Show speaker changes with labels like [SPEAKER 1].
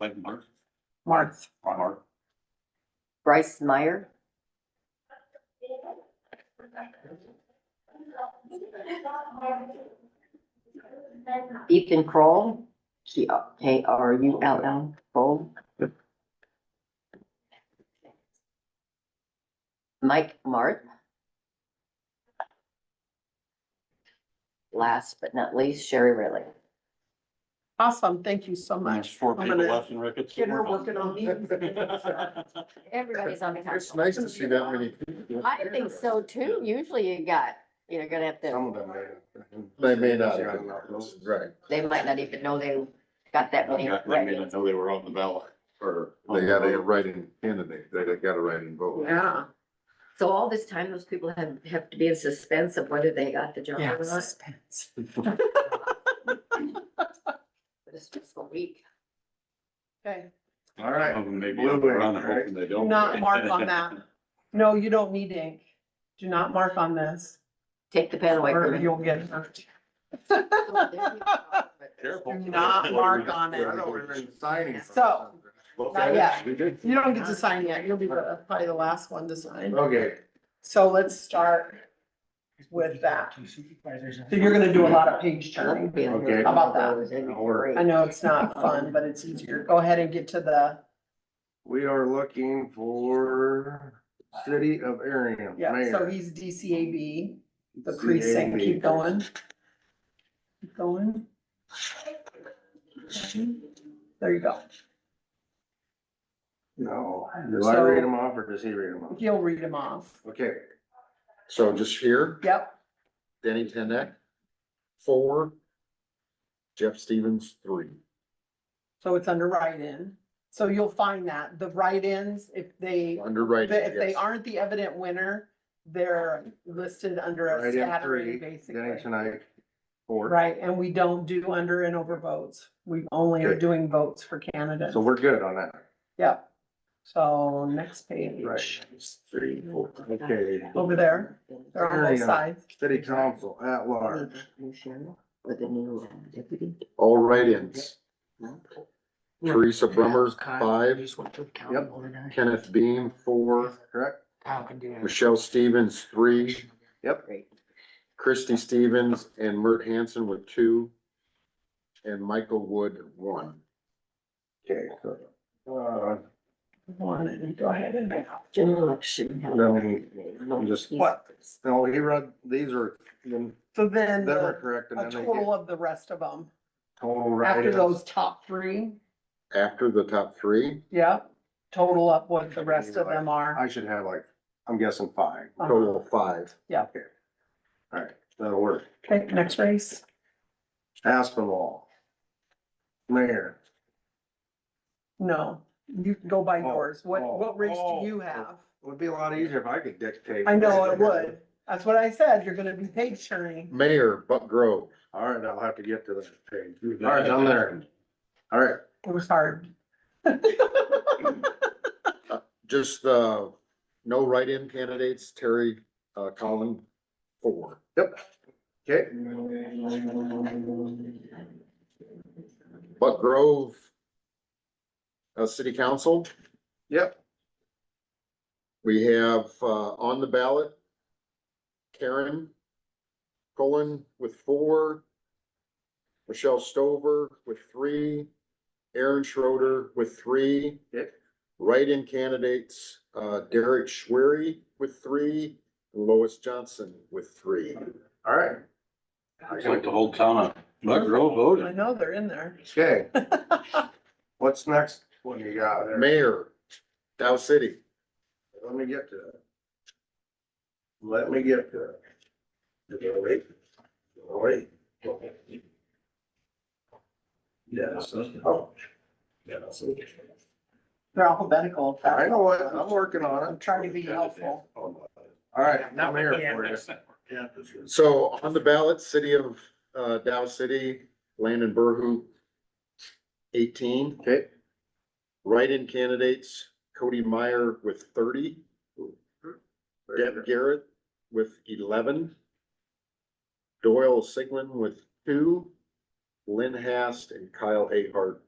[SPEAKER 1] Like Mark,
[SPEAKER 2] Marth,
[SPEAKER 1] Mark,
[SPEAKER 3] Bryce Meyer, Ethan Kroll, K K R U L L, Kroll. Mike Mart. Last but not least, Sherry Riley.
[SPEAKER 2] awesome, thank you so
[SPEAKER 1] there's
[SPEAKER 2] much.
[SPEAKER 1] four
[SPEAKER 2] I'm
[SPEAKER 1] people
[SPEAKER 2] gonna
[SPEAKER 1] left in Ricketts.
[SPEAKER 2] Get her working on these.
[SPEAKER 3] Everybody's on the
[SPEAKER 4] It's nice to see that many. people.
[SPEAKER 3] I think so too. Usually you got, you're gonna have
[SPEAKER 4] Some
[SPEAKER 3] to,
[SPEAKER 4] of them may. They may not. Right.
[SPEAKER 3] they might not even know they got that many.
[SPEAKER 1] Yeah, I mean, I know they were on the ballot or.
[SPEAKER 4] They got a writing candidate, they got a writing vote.
[SPEAKER 2] Yeah.
[SPEAKER 3] So all this time, those people have, have to be in suspense of whether they got the job or not.
[SPEAKER 2] Suspense.
[SPEAKER 3] But It's just a week.
[SPEAKER 2] Okay,
[SPEAKER 4] All right.
[SPEAKER 1] Maybe around and hoping they
[SPEAKER 2] do
[SPEAKER 1] don't.
[SPEAKER 2] not mark on that. No, you don't need ink. Do not mark on this
[SPEAKER 3] Take the pen away
[SPEAKER 2] or
[SPEAKER 3] from me.
[SPEAKER 2] you'll get hurt.
[SPEAKER 1] Careful.
[SPEAKER 2] Do not mark on it.
[SPEAKER 4] Signing.
[SPEAKER 2] So-
[SPEAKER 1] Not
[SPEAKER 2] yet.
[SPEAKER 1] We did.
[SPEAKER 2] You don't get to sign yet. You'll be the- probably the last one to sign.
[SPEAKER 4] Okay,
[SPEAKER 2] So let's start. with that. So you're gonna do a lot of page turning.
[SPEAKER 4] Okay.
[SPEAKER 2] How about that? I
[SPEAKER 3] that?
[SPEAKER 2] know it's not fun, but it's easier. Go ahead and get to the,
[SPEAKER 4] we are looking for city of Aryan.
[SPEAKER 2] yeah, so
[SPEAKER 4] mayor.
[SPEAKER 2] he's DCAB, the precinct. Keep going. Keep going. There you go.
[SPEAKER 4] No, do I
[SPEAKER 2] So-
[SPEAKER 4] read them off or does he read them off?
[SPEAKER 2] He'll read them off.
[SPEAKER 4] Okay. So just here,
[SPEAKER 2] Yep,
[SPEAKER 4] Danny Tenek, four, Jeff Stevens, three.
[SPEAKER 2] so it's under write-in. So you'll find that, the write-ins, if they,
[SPEAKER 4] Underwriting.
[SPEAKER 2] if they
[SPEAKER 4] yes.
[SPEAKER 2] aren't the evident winner, they're listed under a
[SPEAKER 4] Write-in
[SPEAKER 2] category,
[SPEAKER 4] three, Danny
[SPEAKER 2] basically.
[SPEAKER 4] Tenek, four.
[SPEAKER 2] Right, and we don't do under and over votes. We only are
[SPEAKER 4] Okay.
[SPEAKER 2] doing votes for candidates.
[SPEAKER 4] So we're good on that.
[SPEAKER 2] Yep. So next page,
[SPEAKER 4] Three, four. Okay,
[SPEAKER 2] over there, they're on both
[SPEAKER 4] Area.
[SPEAKER 2] sides.
[SPEAKER 4] city council at large,
[SPEAKER 3] With the new uh, deputy.
[SPEAKER 5] All write-ins.
[SPEAKER 3] Yeah.
[SPEAKER 5] Teresa Brummer, five.
[SPEAKER 4] Yep.
[SPEAKER 5] Kenneth Beam, four.
[SPEAKER 4] correct?
[SPEAKER 5] Michelle Stevens, three.
[SPEAKER 3] Great.
[SPEAKER 5] Christy Stevens and Mert Hansen with two. And Michael Wood, one.
[SPEAKER 4] Okay. so, Uh,
[SPEAKER 2] One, and go ahead and.
[SPEAKER 3] General election.
[SPEAKER 4] No, just- What? no, he read, these are, then,
[SPEAKER 2] So then
[SPEAKER 4] they were
[SPEAKER 2] the-
[SPEAKER 4] correct, and
[SPEAKER 2] a
[SPEAKER 4] then they get
[SPEAKER 2] total of the rest of them,
[SPEAKER 4] total
[SPEAKER 2] after
[SPEAKER 4] write-ins.
[SPEAKER 2] those top three,
[SPEAKER 5] After the top three,
[SPEAKER 2] yep, total up what the rest of them are.
[SPEAKER 4] I should have like, I'm guessing five.
[SPEAKER 2] Uh-huh.
[SPEAKER 5] total of five.
[SPEAKER 4] Alright, that'll work.
[SPEAKER 2] Okay, next race.
[SPEAKER 4] Aspinall. Mayor.
[SPEAKER 2] No, you can go by
[SPEAKER 4] Oh,
[SPEAKER 2] yours. What,
[SPEAKER 4] oh,
[SPEAKER 2] what race
[SPEAKER 4] oh,
[SPEAKER 2] do you
[SPEAKER 4] oh.
[SPEAKER 2] have?
[SPEAKER 4] Would be a lot easier if I could dictate.
[SPEAKER 2] I know it would. That's what I said. You're gonna be page turning.
[SPEAKER 5] Mayor, Buck Grove.
[SPEAKER 4] Alright, I'll have to get to that page. Alright, I'm there. Alright,
[SPEAKER 2] It was hard.
[SPEAKER 5] Just, uh, no write-in candidates, Terry, uh, Collin, four.
[SPEAKER 4] yep. Okay,
[SPEAKER 5] Buck Grove. Uh, city council.
[SPEAKER 4] yep,
[SPEAKER 5] We have, uh, on the ballot, Karen Cullen with four, Michelle Stover with three, Aaron Schroeder with three.
[SPEAKER 4] Yep.
[SPEAKER 5] Write-in candidates, uh, Derek Schwery with three, Lois Johnson with three.
[SPEAKER 4] alright,
[SPEAKER 1] It's like the whole town of Buck Grove voted.
[SPEAKER 2] I know they're in there.
[SPEAKER 4] okay. What's next one you got there?
[SPEAKER 5] Mayor, Dow City,
[SPEAKER 4] Let me get to it. Let me get to it. Okay, wait. Wait. Yes. oh. Yes.
[SPEAKER 2] They're alphabetical.
[SPEAKER 4] I know what, I'm working on
[SPEAKER 2] I'm
[SPEAKER 4] it.
[SPEAKER 2] trying to be helpful.
[SPEAKER 4] All right, now mayor for you.
[SPEAKER 5] so on the ballot, city of, uh, Dow City, Landon Burhu, eighteen.
[SPEAKER 4] Okay,
[SPEAKER 5] Write-in candidates, Cody Meyer with thirty, Deb Garrett with eleven, Doyle Siglin with two, Lynn Hast and Kyle Ahart